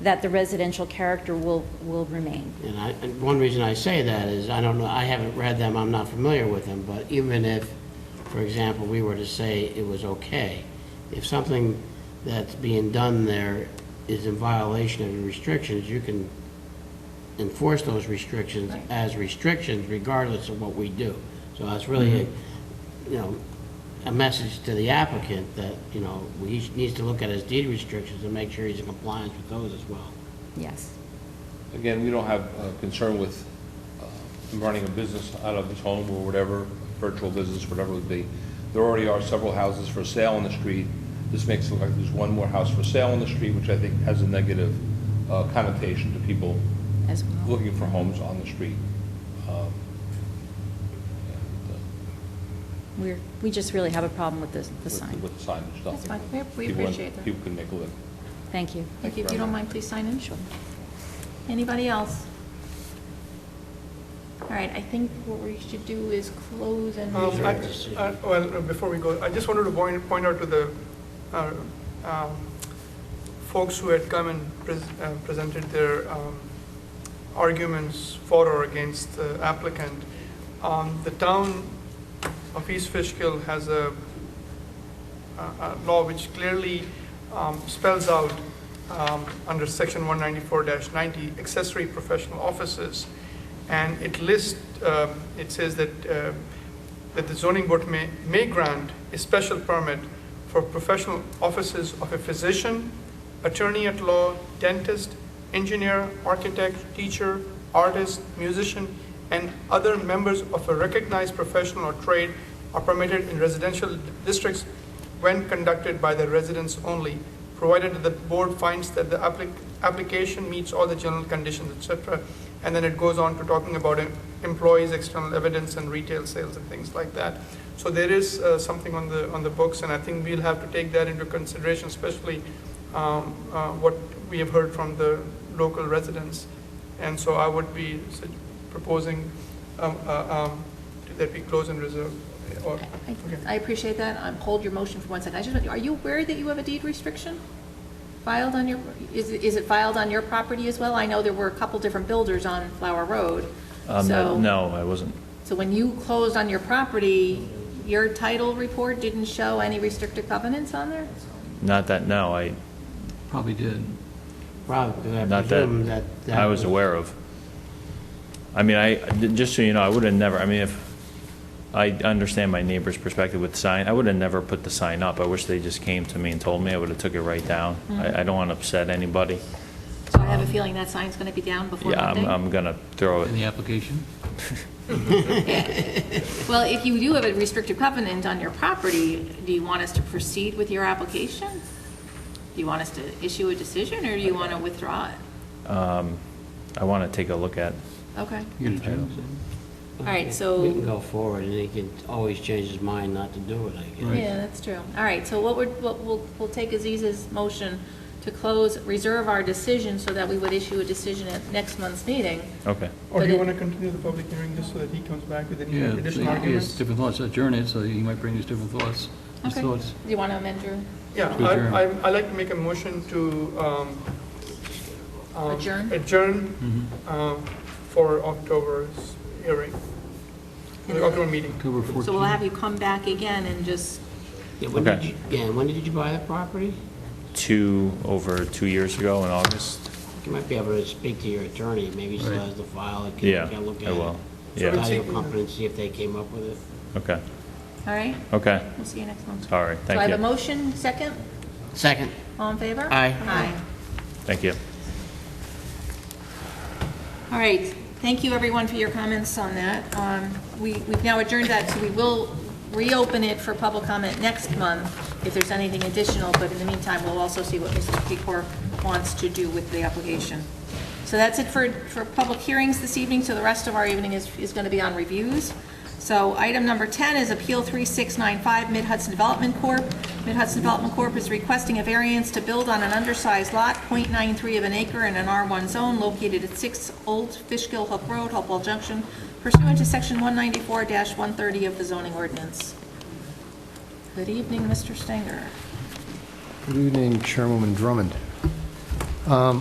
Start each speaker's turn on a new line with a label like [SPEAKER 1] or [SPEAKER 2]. [SPEAKER 1] that the residential character will, will remain.
[SPEAKER 2] And I, and one reason I say that is, I don't know, I haven't read them, I'm not familiar with them, but even if, for example, we were to say it was okay, if something that's being done there is in violation of the restrictions, you can enforce those restrictions as restrictions regardless of what we do. So that's really, a you know, a message to the applicant that, you know, he needs to look at his deed restrictions and make sure he's in compliance with those as well.
[SPEAKER 1] Yes.
[SPEAKER 3] Again, we don't have uh, concern with uh, him running a business out of his home or whatever, virtual business, whatever it would be. There already are several houses for sale on the street. This makes it look like there's one more house for sale on the street, which I think has a negative uh, connotation to people
[SPEAKER 1] As well.
[SPEAKER 3] looking for homes on the street. Um, and, uh,
[SPEAKER 1] We're, we just really have a problem with the, the
[SPEAKER 3] with-
[SPEAKER 1] sign.
[SPEAKER 3] With the signage,
[SPEAKER 4] That's fine.
[SPEAKER 3] nothing.
[SPEAKER 4] We- we
[SPEAKER 3] People-
[SPEAKER 4] appreciate that.
[SPEAKER 3] People can make a living.
[SPEAKER 1] Thank you.
[SPEAKER 4] Thank you. If you don't mind, please sign in. Sure. Anybody else? All right, I think what we should do is close and.
[SPEAKER 2] These
[SPEAKER 5] Um,
[SPEAKER 2] are
[SPEAKER 5] I-
[SPEAKER 2] the decisions.
[SPEAKER 5] I- Well, uh, before we go, I just wanted to point, point out to the uh, um, folks who had come and pres- uh, presented their um, arguments for or against the applicant. Um, The town of East Fishkill has a a- a uh, law which clearly um, spells out, um, under section 194-90, accessory professional offices, and it lists, um, it says that, uh, that the zoning board may, may grant a special permit for professional offices of a physician, attorney at law, dentist, engineer, architect, teacher, artist, musician, and other members of a recognized professional or trade are permitted in residential districts when conducted by the residents only, provided that the board finds that the applic- application meets all the general conditions, etc. And then it goes on to talking about em- employees, external evidence, and retail sales and things like that. So there is uh, something on the, on the books, and I think we'll have to take that into consideration, especially um, uh, what we have heard from the local residents. And so I would be su- proposing um, uh, um, that we close and reserve, or,
[SPEAKER 4] I-
[SPEAKER 5] okay.
[SPEAKER 4] I appreciate that. Um, Hold your motion for one second. I just, want- are you aware that you have a deed restriction filed on your, is it is it filed on your property as well? I know there were a couple different builders on Flower Road,
[SPEAKER 6] Um,
[SPEAKER 4] so.
[SPEAKER 6] No, I wasn't.
[SPEAKER 4] So when you closed on your property, your title report didn't show any restricted covenants on there?
[SPEAKER 6] Not that, no, I,
[SPEAKER 7] Probably did.
[SPEAKER 2] Probably, 'cause I
[SPEAKER 6] not that
[SPEAKER 2] presume that. that
[SPEAKER 6] I was aware of. I mean, I, just so you know, I would have never, I mean, if, I understand my neighbor's perspective with sign, I would have never put the sign up. I wish they just came to me and told me, I would have took it right down.
[SPEAKER 4] Mm-hmm.
[SPEAKER 6] I, I don't want to upset anybody.
[SPEAKER 4] So I have a feeling that sign's going to be down before
[SPEAKER 6] Yeah, I'm,
[SPEAKER 4] Monday.
[SPEAKER 6] I'm gonna throw
[SPEAKER 7] In the
[SPEAKER 6] it.
[SPEAKER 7] application?
[SPEAKER 4] Well, if you do have a restricted covenant on your property, do you want us to proceed with your application? Do you want us to issue a decision, or do you want to withdraw it?
[SPEAKER 6] Um, I want to take a look at,
[SPEAKER 4] Okay.
[SPEAKER 7] You got a job,
[SPEAKER 4] All right,
[SPEAKER 2] We can
[SPEAKER 4] so,
[SPEAKER 2] go forward, and he can always change his mind not to do it, I guess.
[SPEAKER 4] yeah, that's true. All right, so what we're, what we'll, we'll take Aziz's motion to close, reserve our decision so that we would issue a decision at next month's meeting.
[SPEAKER 6] okay.
[SPEAKER 5] Or
[SPEAKER 4] But
[SPEAKER 5] do you
[SPEAKER 4] it-
[SPEAKER 5] want to continue the public hearing just so that he comes back with any
[SPEAKER 7] Yeah,
[SPEAKER 5] additional
[SPEAKER 7] so he has
[SPEAKER 5] arguments?
[SPEAKER 7] different thoughts, adjourn it, so he might bring his different thoughts, his
[SPEAKER 4] Okay.
[SPEAKER 7] thoughts.
[SPEAKER 4] Do you want to amend your
[SPEAKER 5] Yeah,
[SPEAKER 7] To adjourn.
[SPEAKER 5] I, I- I'd like to make a motion to, um, um,
[SPEAKER 4] Adjourn?
[SPEAKER 5] Adjourn,
[SPEAKER 7] Mm-hmm.
[SPEAKER 5] um, for October's hearing, the October meeting.
[SPEAKER 7] October
[SPEAKER 4] So we'll
[SPEAKER 7] 14th.
[SPEAKER 4] have you come back again and just,
[SPEAKER 2] Yeah, when did
[SPEAKER 6] Okay.
[SPEAKER 2] you- Yeah, and when did you buy that property?
[SPEAKER 6] Two, over two years ago in August.
[SPEAKER 2] You might be able to speak to your attorney, maybe he still
[SPEAKER 7] Right.
[SPEAKER 2] has the file, and
[SPEAKER 6] Yeah,
[SPEAKER 2] can, can look at
[SPEAKER 6] I
[SPEAKER 2] it.
[SPEAKER 6] will.
[SPEAKER 5] So
[SPEAKER 6] Yeah,
[SPEAKER 5] it's-
[SPEAKER 2] Title company, and see if they came up with it.
[SPEAKER 6] okay,
[SPEAKER 4] all right?
[SPEAKER 6] okay.
[SPEAKER 4] We'll see you next month.
[SPEAKER 6] All right,
[SPEAKER 4] So
[SPEAKER 6] thank
[SPEAKER 4] I have a
[SPEAKER 6] you.
[SPEAKER 4] motion, second?
[SPEAKER 2] Second.
[SPEAKER 4] All in favor?
[SPEAKER 2] Aye.
[SPEAKER 4] Aye.
[SPEAKER 6] Thank you.
[SPEAKER 4] All right, thank you, everyone, for your comments on that. Um, we- We've now adjourned that, so we will reopen it for public comment next month if there's anything additional, but in the meantime, we'll also see what Mr. Pecor wants to do with the application. So that's it for, for public hearings this evening, so the rest of our evening is, is going to be on reviews. So item number 10 is Appeal 3695, Mid Hudson Development Corp. Mid Hudson Development Corp. is requesting a variance to build on an undersized lot, .93 of an acre in an R1 zone located at 6 Old Fishkill Hook Road, Hopewell Junction, pursuant to Section 194-130 of the zoning ordinance. Good evening, Mr. Stenger.
[SPEAKER 8] Good evening, Chairwoman Drummond. Um,